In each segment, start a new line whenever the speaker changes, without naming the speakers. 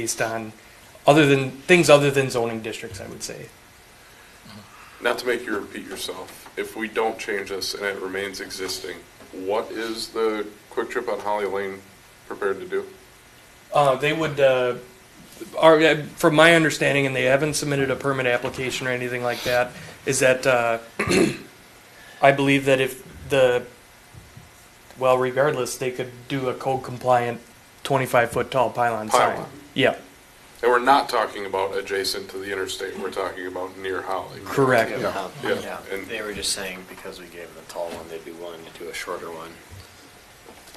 based on other than, things other than zoning districts, I would say.
Not to make you repeat yourself, if we don't change this and it remains existing, what is the Quick Trip on Holly Lane prepared to do?
Uh, they would, uh, are, uh, from my understanding, and they haven't submitted a permit application or anything like that, is that, uh, I believe that if the, well, regardless, they could do a code compliant twenty-five foot tall pylon sign.
Pylon.
Yeah,
And we're not talking about adjacent to the interstate, we're talking about near Holly.
correct.
Yeah,
Yeah,
yeah, and-
they were just saying because we gave them the tall one, they'd be willing to do a shorter one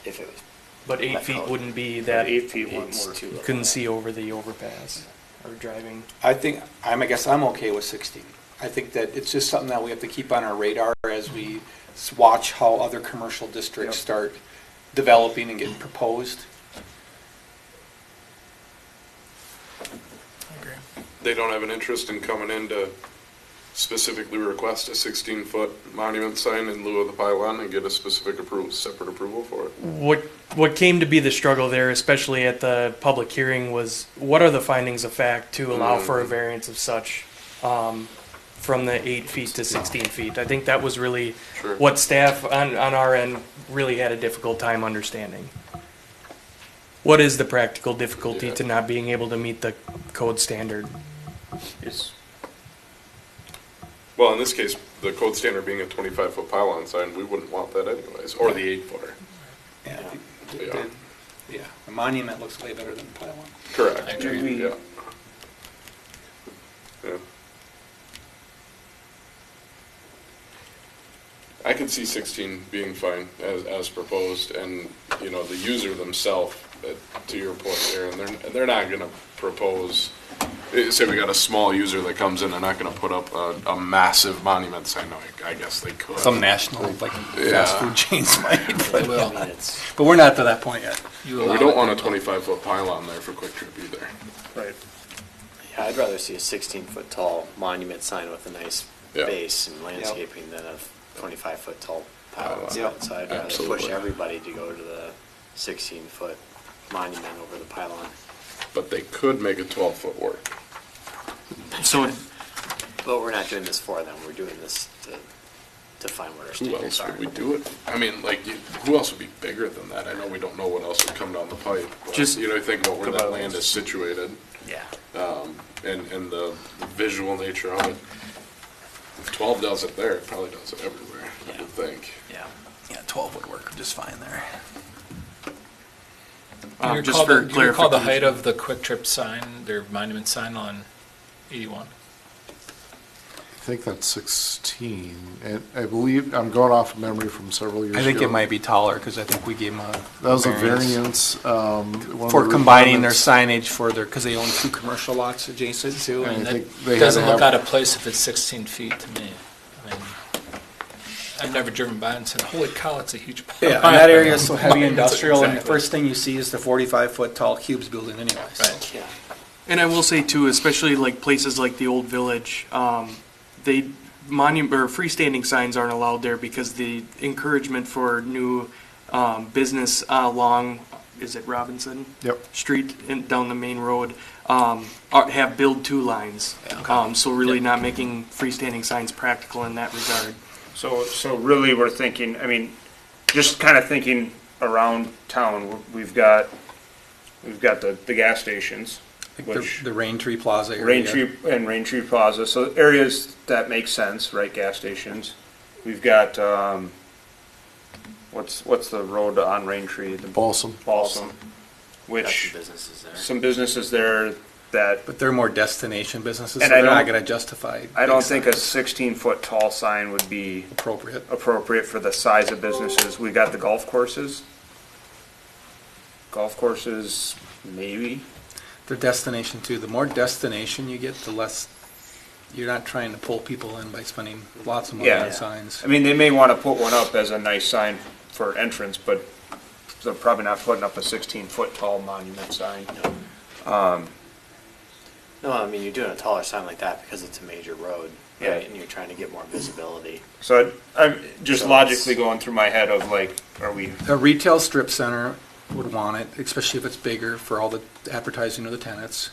if it was.
But eight feet wouldn't be that,
Eight feet, one
it's
more.
too
you
low.
couldn't see over the overpass or driving.
I think, I'm, I guess I'm okay with 16. I think that it's just something that we have to keep on our radar as we s- watch how other commercial districts start developing and getting proposed.
They don't have an interest in coming in to specifically request a sixteen-foot monument sign in lieu of the pylon and get a specific approval, separate approval for it.
What what came to be the struggle there, especially at the public hearing, was what are the findings of fact to allow for
Mm-hmm.
a variance of such um, from the eight feet to sixteen feet? I think that was really
Sure.
what staff on on our end really had a difficult time understanding. What is the practical difficulty
Yeah.
to not being able to meet the code standard?
It's,
Well, in this case, the code standard being a twenty-five-foot pylon sign, we wouldn't want that anyways, or the eight-footer.
Yeah, I think that-
Yeah.
that- Yeah, a monument looks way better than a pylon.
Correct.
agree.
Yeah. Yeah. I could see sixteen being fine as, as proposed, and, you know, the user themselves, to your point, Aaron, they're, they're not gonna propose, eh, say we got a small user that comes in, they're not gonna put up a, a massive monument sign, no, I- I guess they could.
Some national, like, fast
Yeah.
food chains might,
I
but,
mean, it's,
but we're not to that point yet.
But we don't want a twenty-five foot pylon there for Quick Trip either.
right.
yeah, I'd rather see a sixteen foot tall monument sign with a nice
Yeah.
base and landscaping than a twenty-five foot tall
Yeah.
pylon sign. So I'd rather push
Absolutely.
everybody to go to the sixteen foot monument over the pylon.
But they could make a twelve foot work.
So. But we're not doing this for them, we're doing this to, to find what our
Who else
standards are.
would we do it? I mean, like, you- who else would be bigger than that? I know we don't know what else would come down the pipe. but,
Just-
You know, think about where that
About-
land is situated
Yeah.
and, and the the visual nature of it. If twelve does it there, it probably does it everywhere, I would think.
Yeah.
Yeah, 12 would work just fine there.
Do you
Um, just
recall
for
the- Do you recall the height
clarification.
of the Quick Trip sign, their monument sign on 81?
I think that's 16, and I believe, I'm going off memory from several years ago.
I think it might be taller because I think we gave them a.
That was a variance. um, one of
For
the
combining their
requirements.
signage for their, because they own
Two commercial lots adjacent to,
I mean,
I think they
that
had
doesn't
to
look out
have-
of place if it's 16 feet to me. I mean, I've never driven by and said, holy cow, it's a huge.
yeah, and that area is so heavy
Monument,
industrial, and the
exactly.
first thing you see is the 45-foot tall cubes building anyway, so.
Right.
Yeah.
And I will say too, especially like places like the old village, um, they monument or freestanding signs aren't allowed there because the encouragement for new um, business along is it Robinson
Yep.
Street and down the main road um, are, have build two lines. Um, so really not making freestanding signs practical in that regard.
So, so really, we're thinking, I mean, just kind of thinking around town, we've got, we've got the, the gas stations,
think
the
which,
the Rain Tree Plaza area.
Rain Tree and Rain Tree Plaza, so areas that make sense, right, gas stations. We've got, um, what's, what's the road on Rain Tree? The
Balsam.
Balsam,
Got some
which,
businesses there.
some businesses there that
But they're more destination businesses, so
And I
they're not
don't-
going to justify.
I don't
big
think a
signs
sixteen foot tall sign would be
Appropriate.
appropriate for the size of businesses. We got the golf courses. Golf courses, maybe.
They're destination too. The more destination you get, the less, you're not trying to pull people in by spending lots of money
Yeah.
on signs.
I mean, they may want to put one up as a nice sign for entrance, but they're probably not putting up a sixteen foot tall monument sign.
No, I mean, you're doing a taller sign like that because it's a major road,
Yeah.
right? And you're trying to get more visibility.
So I- I'm just
So it's-
logically going through my head of like, are we,
A retail strip center
would want it, especially if it's bigger for all the advertising of the tenants.